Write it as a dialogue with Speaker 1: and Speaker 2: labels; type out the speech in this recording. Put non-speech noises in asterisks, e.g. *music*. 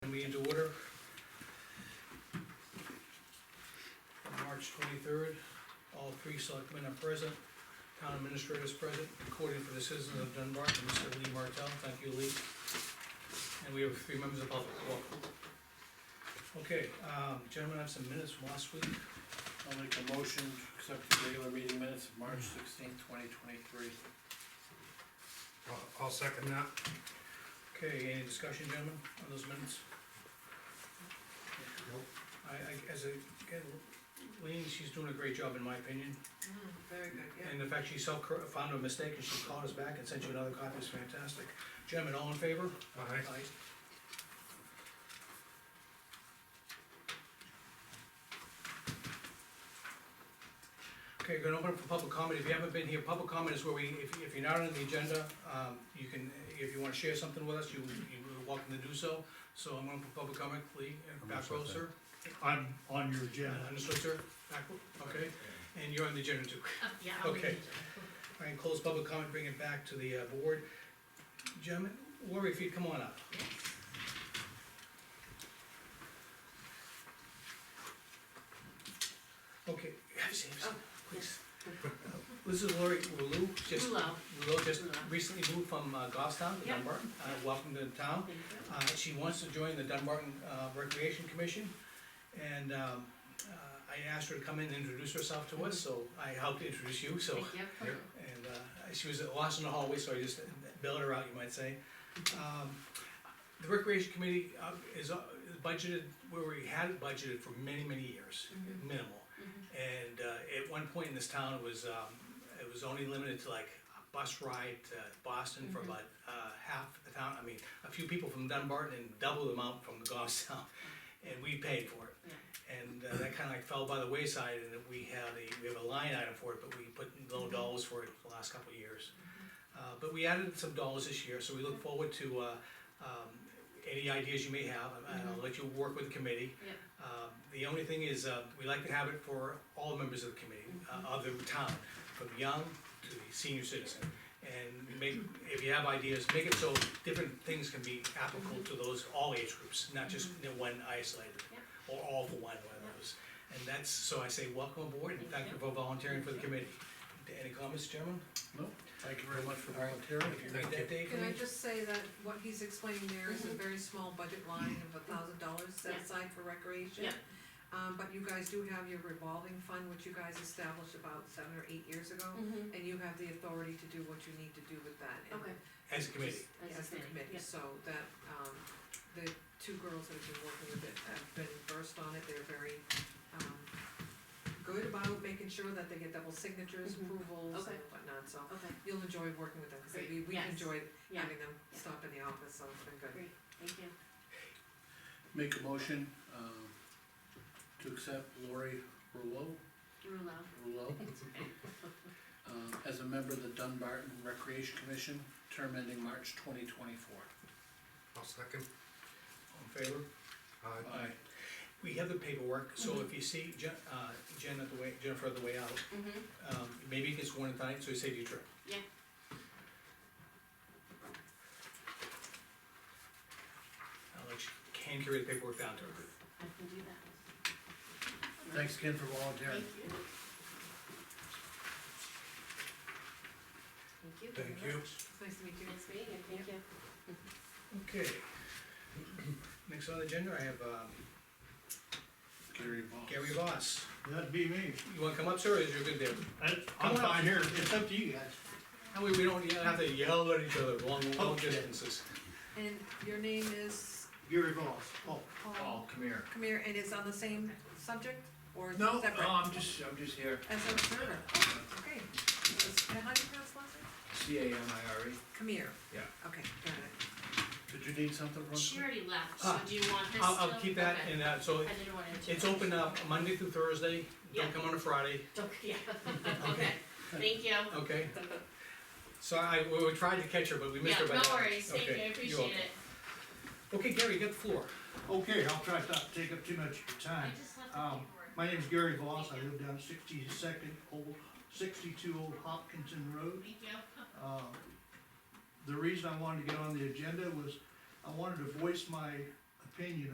Speaker 1: three selectmen are present, town administrator is present, recording for the citizens of Dunbar, and Mr. Lee Martell, thank you, Lee. And we have three members of public, welcome. Okay, um, gentlemen, I have some minutes from last week,
Speaker 2: I'll make a motion to accept the regular meeting minutes of March sixteenth, twenty twenty-three.
Speaker 3: I'll- I'll second that.
Speaker 1: okay, any discussion, gentlemen, on those minutes? I, I, as a, again, Lean, she's doing a great job, in my opinion,
Speaker 4: Mm, Very good, yeah.
Speaker 1: and the fact she self, found a mistake, and she called us back and sent you another copy is fantastic. Gentlemen, all in favor?
Speaker 3: Aye.
Speaker 1: Aye. Okay, gonna open up for public comment, if you haven't been here, public comment is where we, if, if you're not on the agenda, um, you can, if you wanna share something with us, you, you're welcome to do so. So I'm gonna put public comment, Lee, and back row, sir,
Speaker 5: I'm on your
Speaker 1: Uh,
Speaker 5: agenda.
Speaker 1: understood, sir, back, row, okay, and you're on the agenda too.
Speaker 4: Yeah, I'll leave
Speaker 1: Okay.
Speaker 4: it.
Speaker 1: I can close public comment, bring it back to the, uh, board. Gentlemen, Lori, if you'd come on up. Okay, have a seat, have a seat, please. Uh, This is Lori Lulu, just.
Speaker 4: Lulu.
Speaker 1: Lulu, just
Speaker 4: Lulu.
Speaker 1: recently moved from uh, Goffstown to
Speaker 4: Yeah.
Speaker 1: Dunbarton, uh, welcome to the town.
Speaker 4: Thank you.
Speaker 1: Uh, she wants to join the Dunbarton uh, Recreation Commission, and, um, uh, I asked her to come in and introduce herself to us, so I helped introduce you, so.
Speaker 4: Thank you.
Speaker 3: Yep.
Speaker 1: And uh, she was lost in the hallway, so I just bailed her out, you might say. Um, The recreation committee uh, is uh, is budgeted, where we had it budgeted for many, many years,
Speaker 4: Mhm.
Speaker 1: minimal.
Speaker 4: Mhm.
Speaker 1: And uh, at one point in this town, it was, um, it was only limited to like a bus ride to Boston for about uh, half the town, I mean, a few people from Dunbarton and double the amount from *laughs* Goffstown. And we paid for it.
Speaker 4: Yeah.
Speaker 1: And uh, that kinda like fell by the wayside, and that we had a, we have a line item for it, but we put low dollars for it the last couple of years. Uh, but we added some dollars this year, so we look forward to, uh, um, any ideas you may have, and I'll let you work with the committee.
Speaker 4: Yep.
Speaker 1: Um, the only thing is, uh, we like to have it for all members of the committee, uh,
Speaker 6: Mm-hmm.
Speaker 1: of the town, from young to the senior citizen. And make, if you have ideas, make it so different things can be applicable
Speaker 6: Mm-hmm.
Speaker 1: to those, all age groups, not just you know, one isolated. Or all for one, one of those. And that's, so I say, welcome aboard, and thank you for volunteering for the committee. Any comments, gentlemen?
Speaker 2: No, thank you very much for volunteering.
Speaker 1: If you read
Speaker 3: Thank you.
Speaker 1: that, Dave,
Speaker 6: Can I
Speaker 1: please?
Speaker 6: just say that what he's explaining there is a
Speaker 4: Mhm.
Speaker 6: very small budget line of a thousand dollars set
Speaker 4: Yeah.
Speaker 6: aside for recreation.
Speaker 4: Yeah.
Speaker 6: Um, but you guys do have your revolving fund, which you guys established about seven or eight years ago,
Speaker 4: Mhm.
Speaker 6: and you have the authority to do what you need to do with that. and
Speaker 4: Okay.
Speaker 1: as a committee.
Speaker 4: Just as a
Speaker 6: As the committee,
Speaker 4: yep.
Speaker 6: so that, um, the two girls that have been working with it have been versed on it, they're very, um, good about making sure that they get double signatures,
Speaker 4: Mhm.
Speaker 6: approvals
Speaker 4: Okay.
Speaker 6: and whatnot, so
Speaker 4: Okay,
Speaker 6: you'll enjoy working with them, because
Speaker 4: Great,
Speaker 6: we, we
Speaker 4: yes.
Speaker 6: enjoyed
Speaker 4: yeah,
Speaker 6: having them
Speaker 4: Yeah.
Speaker 6: stop in the office, so it's been good.
Speaker 4: great, thank you.
Speaker 2: Make a motion, um, to accept Lori Rouleau,
Speaker 4: Rule out.
Speaker 2: Rouleau, um, as a member of the Dunbarton Recreation Commission, term ending March twenty twenty-four.
Speaker 3: I'll second.
Speaker 1: All in favor?
Speaker 3: Aye.
Speaker 2: Aye.
Speaker 1: We have the paperwork, so if you see Jen, uh, Jen at the way, Jennifer at the way out,
Speaker 4: Mhm.
Speaker 1: um, maybe it gets worn tonight, so you save your trip.
Speaker 4: Yeah.
Speaker 1: I'll let you, can carry the paperwork down to her.
Speaker 4: I can do that.
Speaker 2: Thanks again for volunteering.
Speaker 4: Thank you. Thank you.
Speaker 3: Thank
Speaker 4: very
Speaker 3: you.
Speaker 4: much.
Speaker 6: It's nice to meet you.
Speaker 4: Nice meeting you, thank you.
Speaker 1: Okay. Next on the agenda, I have, um,
Speaker 2: Gary Ball.
Speaker 1: Gary Voss.
Speaker 5: That'd be me.
Speaker 1: You wanna come up, sir, or is you good there?
Speaker 2: Uh,
Speaker 5: I-
Speaker 1: Come
Speaker 5: I'm
Speaker 1: on up.
Speaker 5: fine here. It's up to you guys.
Speaker 1: That way we don't yell- have to yell at each other long, long
Speaker 5: Okay.
Speaker 1: distances.
Speaker 6: And your name is
Speaker 5: Gary Voss. Oh,
Speaker 6: Paul
Speaker 2: come here.
Speaker 6: Kamir, and it's on the same subject, or is it
Speaker 2: No,
Speaker 6: separate?
Speaker 2: no, I'm just, I'm just here,
Speaker 6: As an observer, okay. Is- And how do you pronounce last name?
Speaker 2: C A M I R E.
Speaker 6: Kamir?
Speaker 2: Yeah.
Speaker 6: Okay, got it.
Speaker 2: Did you need something from us?
Speaker 4: She already left, so
Speaker 1: Ah,
Speaker 4: do you want her still?
Speaker 1: I'll, I'll keep that,
Speaker 4: Okay.
Speaker 1: and, uh, so
Speaker 4: I didn't want to.
Speaker 1: it's open up Monday through Thursday, don't
Speaker 4: Yeah.
Speaker 1: come on a Friday,
Speaker 4: Don't, *laughs* yeah,
Speaker 1: *laughs*
Speaker 4: okay, thank you.
Speaker 1: okay?
Speaker 4: *laughs*
Speaker 1: So I, we we tried to catch her, but we missed her by
Speaker 4: Yeah,
Speaker 1: that.
Speaker 4: no worries, thank you, I
Speaker 1: Okay, you're
Speaker 4: appreciate
Speaker 1: welcome.
Speaker 4: it.
Speaker 1: Okay, Gary, you got the floor.
Speaker 5: okay, I'll try not to take up too much of your
Speaker 4: I
Speaker 5: time.
Speaker 4: just left the
Speaker 5: Um,
Speaker 4: paperwork.
Speaker 5: My name's Gary Voss. I live down sixty-second old, sixty-two Old Hopkinton Road.
Speaker 4: Thank you.
Speaker 5: Uh, The reason I wanted to get on the agenda was I wanted to voice my opinion